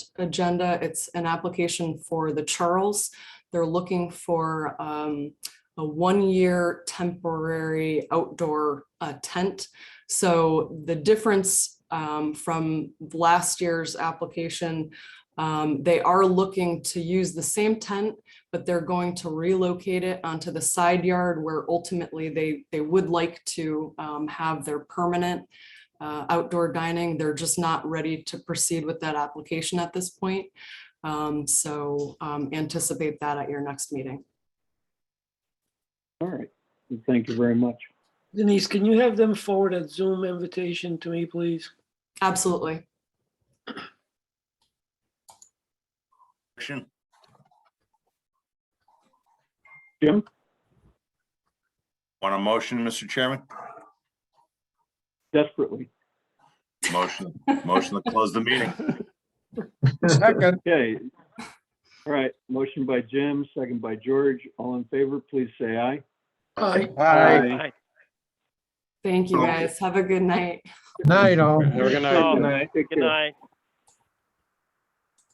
agenda. It's an application for the Charles. They're looking for um, a one-year temporary outdoor uh, tent. So the difference um, from last year's application, um, they are looking to use the same tent, but they're going to relocate it onto the side yard where ultimately they, they would like to um, have their permanent uh, outdoor dining. They're just not ready to proceed with that application at this point. Um, So um, anticipate that at your next meeting. All right. Thank you very much. Denise, can you have them forward a Zoom invitation to me, please? Absolutely. Action. Jim? Want a motion, Mr. Chairman? Desperately. Motion, motion to close the meeting. Second, Okay. All right. Motion by Jim, second by George. All in favor, please say aye. Aye. aye. Thank you, guys. Have a good night. Night all. Have a good night. Take Good care. night.